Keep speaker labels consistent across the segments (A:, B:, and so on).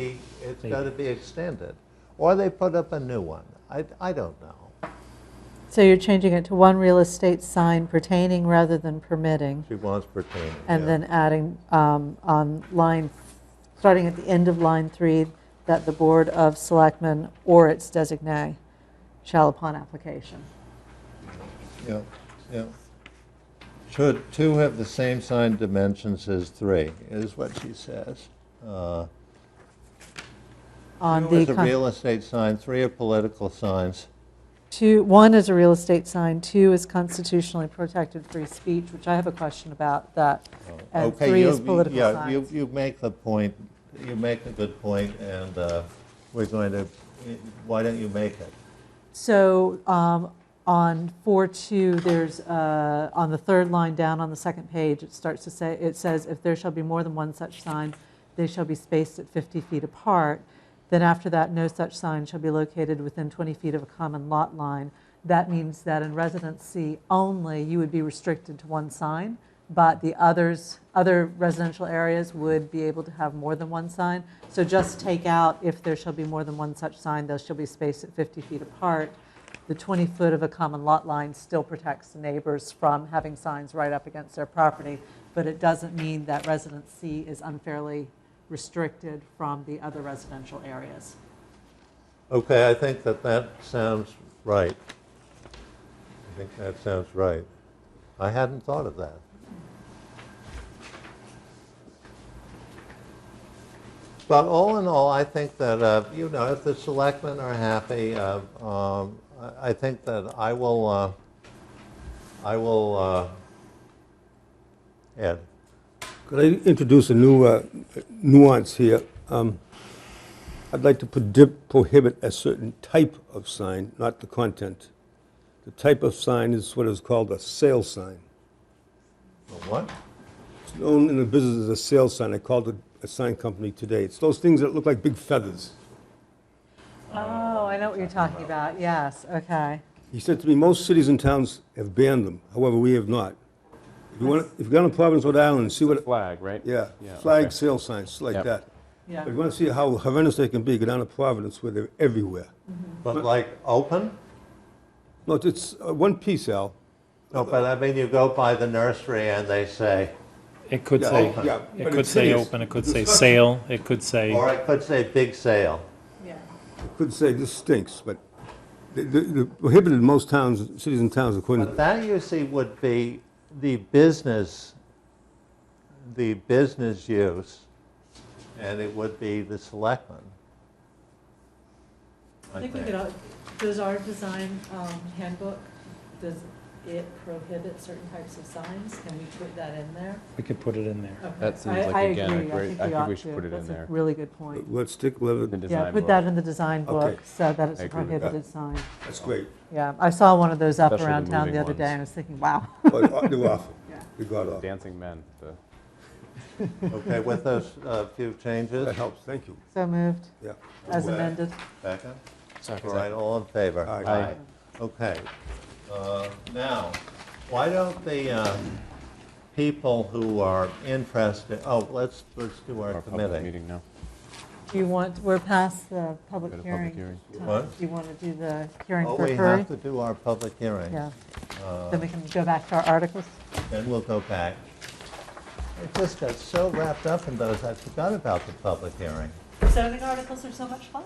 A: be, it's got to be extended. Or they put up a new one. I, I don't know.
B: So you're changing it to one real estate sign pertaining rather than permitting,
A: She wants pertaining.
B: and
A: yeah.
B: then adding um, on line, starting at the end of line three, that the Board of Selectmen or its designee shall upon application.
A: Yeah, yeah. Should two have the same sign dimensions as three, is what she says. Uh,
B: On
A: Two
B: the,
A: is a
B: con-
A: real estate sign, three are political signs.
B: two, one is a real estate sign, two is constitutionally protected free speech, which I have a question about that, and
A: Oh, Okay,
B: three
A: you-
B: is political
A: Yeah, you,
B: signs.
A: you make the point, you make a good point, and uh, we're going to, why don't you make it?
B: So um, on 4.2, there's, uh, on the third line down on the second page, it starts to say, it says, "If there shall be more than one such sign, they shall be spaced at 50 feet apart." Then after that, "No such sign shall be located within 20 feet of a common lot line." That means that in residency only, you would be restricted to one sign, but the others, other residential areas would be able to have more than one sign. So just take out, "If there shall be more than one such sign, those shall be spaced at 50 feet apart." the 20-foot of a common lot line still protects the neighbors from having signs right up against their property, but it doesn't mean that residence C is unfairly restricted from the other residential areas.
A: Okay, I think that that sounds right. I think that sounds right. I hadn't thought of that. But all in all, I think that, uh, you know, if the selectmen are happy, uh, um, I I think that I will, uh, I will, uh, Ed,
C: Could I introduce a new uh, nuance here? Um, I'd like to prodi- prohibit a certain type of sign, not the content. The type of sign is what is called a sale sign.
A: what?
C: It's known in the business as a sale sign. I called it a sign company today. It's those things that look like big feathers.
B: Oh, I know what you're talking about, yes, okay.
C: He said to me, most cities and towns have banned them. However, we have not. If you want, if you go to Providence, Rhode Island, see what,
D: flag, right?
C: yeah,
D: Yeah,
C: flag
D: okay.
C: sale signs like
D: Yep.
C: that.
B: Yeah.
C: If you want to see how horrendous they can be, go down to Providence where they're everywhere.
A: But like, open?
C: No, it's- it's uh, one piece, Al.
A: No, but I mean, you go by the nursery and they say,
E: It could
C: Yeah,
E: say,
C: open. Yeah, but
E: it
C: it
E: could say
C: is-
E: open, it could
C: it's
E: say
C: disgusting.
E: sale, it could say,
A: Or it could say big sale.
C: Could say this stinks, but the- the- the prohibited in most towns, cities and towns according
A: But
C: to,
A: that you see would be the business, the business use, and it would be the selectmen. I think.
B: does our design um, handbook, does it prohibit certain types of signs? Can we put that in there?
E: we could put it in there.
D: That seems like, again, a great- I think we should put it in there.
B: That's a really good point.
C: let's stick, let
D: The
C: it-
B: Yeah,
D: design
B: put
D: book.
B: that in the design book,
C: Okay.
B: so that it's
D: I
B: a
D: agree with that.
B: prohibited sign.
C: that's great.
B: Yeah, I saw one of those up
D: Especially the
B: around town the
D: moving
B: other day,
D: ones.
B: and I was thinking, wow.
C: But uh, they're awful.
B: Yeah.
C: They got off.
D: Dancing men, the
A: Okay, with those uh, few changes.
C: That helps, thank you,
B: So moved,
C: yeah.
B: as
D: uh,
B: amended.
A: Second? All right, all in favor?
C: Aye.
D: Aye.
A: Okay. Uh, Now, why don't the uh, people who are interested, oh, let's, let's do our
D: our public
A: committee.
D: meeting now.
B: Do you want, we're past the public
D: Go to
B: hearing.
D: public hearing.
B: time.
A: What?
B: Do you want to do the hearing
A: Oh,
B: for
A: we
B: Curry?
A: have to do our public hearing.
B: Yeah.
D: Uh,
B: Then we can go back to our articles.
A: Then we'll go back. I just got so wrapped up in those, I forgot about the public hearing.
B: Zoning articles are so much fun.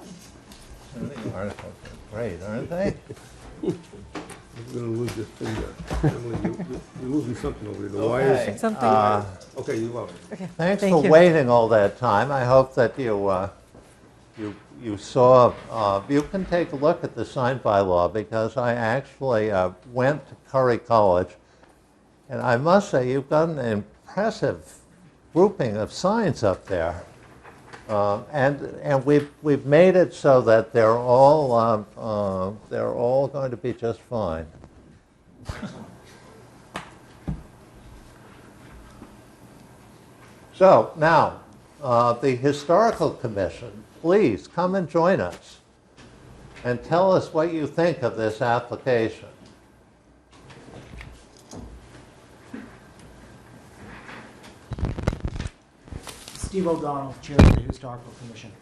A: And the articles are Great, aren't they?
C: We're gonna lose this finger. Emily, you- You're losing something over there, the wires.
A: Okay.
B: Something,
C: Okay, you are.
A: Thanks
B: Thank
A: for
B: you.
A: waiting all that time. I hope that you, uh, you, you saw, uh, you can take a look at the sign bylaw because I actually uh, went to Curry College. And I must say, you've got an impressive grouping of signs up there. Uh, And, and we've, we've made it so that they're all, um, uh, they're all going to be just fine. So now, uh, the Historical Commission, please come and join us and tell us what you think of this application.
F: Steve O'Donnell, Chair of the Historical Commission.